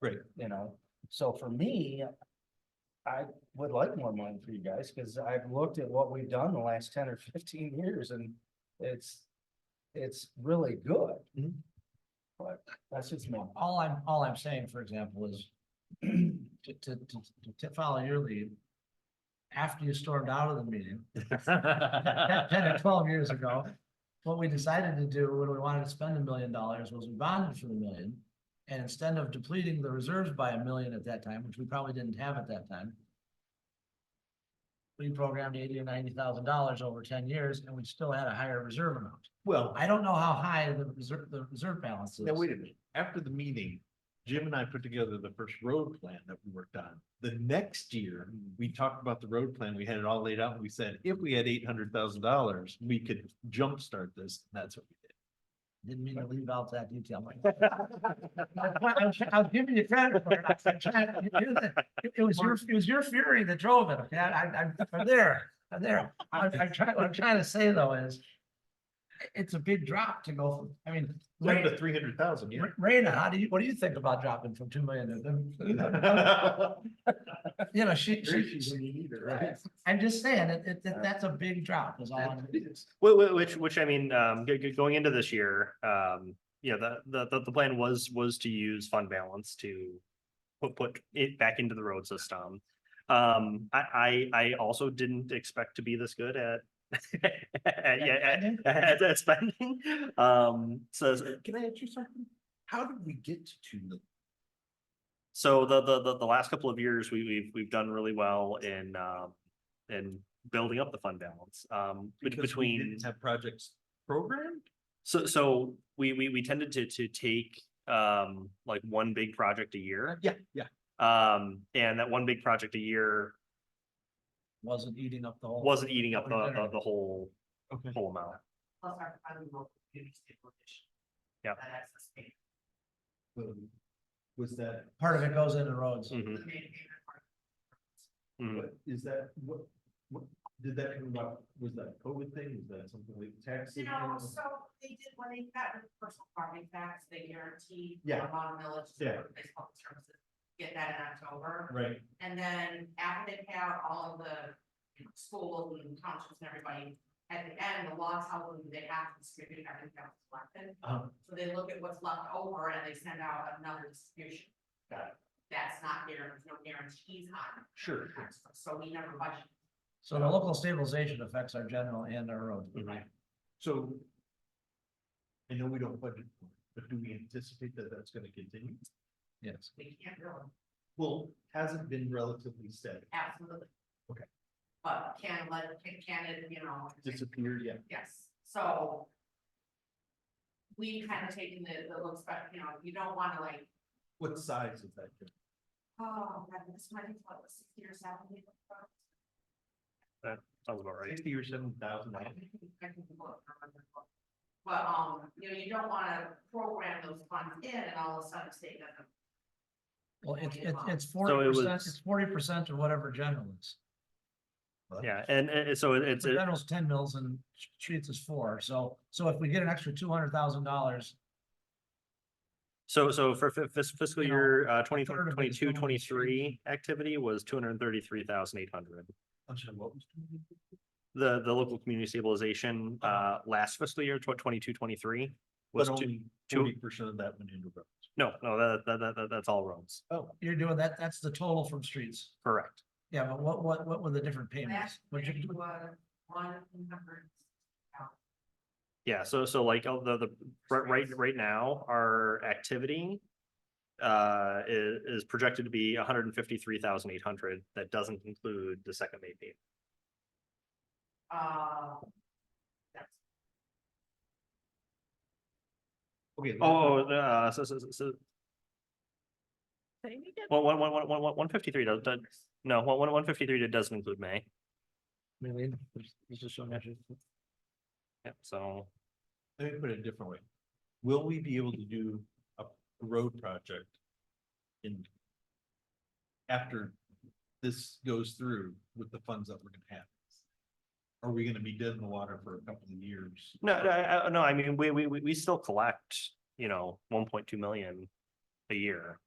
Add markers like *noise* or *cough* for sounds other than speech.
Right. You know, so for me, I would like more money for you guys, cause I've looked at what we've done the last ten or fifteen years and it's, it's really good. Mhm. But that's just me. All I'm, all I'm saying, for example, is *clears throat* to, to, to, to follow your lead. After you stormed out of the meeting, *laughs* ten ten or twelve years ago, what we decided to do when we wanted to spend a million dollars was we bonded for the million. And instead of depleting the reserves by a million at that time, which we probably didn't have at that time. We programmed eighty or ninety thousand dollars over ten years and we still had a higher reserve amount. Well, I don't know how high the reserve, the reserve balance is. now wait a minute. After the meeting, Jim and I put together the first road plan that we worked on. The next year, we talked about the road plan. We had it all laid out. and We said, if we had eight hundred thousand dollars, we could jumpstart this. That's what we did. Didn't mean to leave out that detail. Mike. *laughs* I- I'm- *laughs* I'll give you the credit for it. I- I'm trying to- you're the- It it was your, it was your fury that drove it. Okay, I, I- I'm, I'm there, I'm there. I'm, I'm trying, what I'm trying to say though is it's a big drop to go, from- I mean, Like Ray- the three hundred thousand, yeah. Ra- Raina, how do you, what do you think about dropping from two million to? *laughs* You know, she, she, I'm just saying, it, it, that- that's a big drop is all. I'm- Whi- whi- Which, which, I mean, um, go- go- going into this year, um, you know, the- the, the, the plan was, was to use fund balance to put, put it back into the road system. Um, I, I, I also didn't expect to be this good at, *laughs* at, yeah, spending? at, at- at spending. Um, so, Can I ask you something? How did we get to two million? so the, the, the, the last couple of years, we, we've, we've done really well in, um, in building up the fund balance, um, bet- Because we between. didn't Have projects programmed? So, so we, we, we tended to, to take, um, like one big project a year. Yeah, yeah. Um, and that one big project a year Wasn't eating up the whole. wasn't eating up the, Covering the, dinner. the whole, Okay. whole amount. Plus our private local community stabilization. Yeah. That access payment, Um, Was that, Part of it goes into roads. the Mhm, main payment part. mhm. what, is that, what, what, did that come about, was that a COVID thing, was that something like taxes? No, so they did, when they got rid of personal farming tax, they guaranteed. Yeah. Amount of millage. to Yeah. Place public services, get that in October, Right, and then after they pay out all of the schools and townships and everybody. At the end, the law tells them they have to distribute everything that was collected, um, so they look at what's left over and they send out another distribution. Got it. That's not there, there's no guarantees on it. sure, sure. So we never budget. So the local stabilization affects our general and our road. Mhm. so. I know we don't budget, for it, but do we anticipate that that's gonna continue? Yes. We can't really, Well, hasn't been relatively steady, absolutely. Okay. But can let, can, can it, you know, disappeared, yeah, yes, so. We've kind of taken the, the looks, but, you know, you don't want to like, what size is that? Jim? oh, God, this might be what, sixty or seventy? Sounds about right. Sixty or seven thousand I dollars? can look, I remember. But, um, you know, you don't want to program those funds in and all of a sudden say that. Well, it's, it's, it's it forty percent, was- it's forty percent of whatever general is. Yeah, and, and so it- it's, So it- General's ten mils and streets is four, so, so if we get an extra two hundred thousand dollars, so, so for fi- fis- fiscal You know, year, uh, twenty third of it is twenty-two, going to streets. twenty-three activity was two hundred and thirty-three thousand eight hundred. I'm sorry, what was? The, the local community stabilization, Uh-huh. uh, last fiscal year, tw- twenty-two, twenty-three was But two, only two- forty percent of that went into roads. no, no, that, that, that- that, that's all roads. Oh, you're doing that, that's the total from streets. Correct. Yeah, but what, what, what were the different payments? Would you- Was one hundred. Yeah, so, so like, uh, the, the, right, right, right now, our activity. Uh, is, is projected to be hundred and fifty-three thousand eight hundred, that doesn't include the second May payment. Uh, that's okay. Oh, uh, so, so, so- so, Say it again. one, one, one, one, one, one, one fifty-three does, does, no, one, one, one fifty-three doesn't include May, yeah, so. let me put it a different way. Will we be able to do a road project in after this goes through with the funds that we're gonna have? Are we gonna be dead in the water for a couple of years? No, no, I, I, no, I mean, we, we, we, we still collect, you know, one point two million a year.